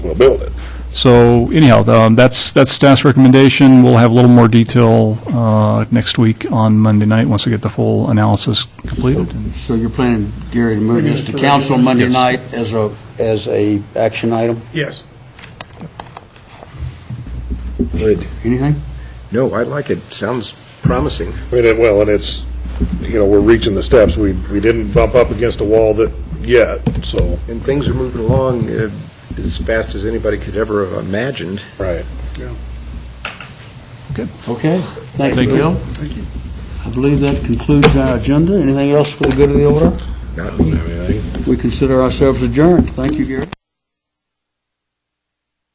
we'll build it. So anyhow, um, that's, that's staff's recommendation. We'll have a little more detail uh, next week on Monday night, once we get the full analysis completed. So you're planning, Gary, to move this to council Monday Yes. night as a, as a action item? Yes. Good. Anything? No, I like it. Sounds promising. I mean, it- well, and it's, you know, we're reaching the steps. We, we didn't bump up against a wall that, yet, so. And things are moving along uh, as fast as anybody could ever have imagined. Right. Okay, thank you, Thank you. Bill. Thank you. I believe that concludes our agenda. Anything else for the good of the order? Not me. We consider ourselves adjourned. Thank you, Gary.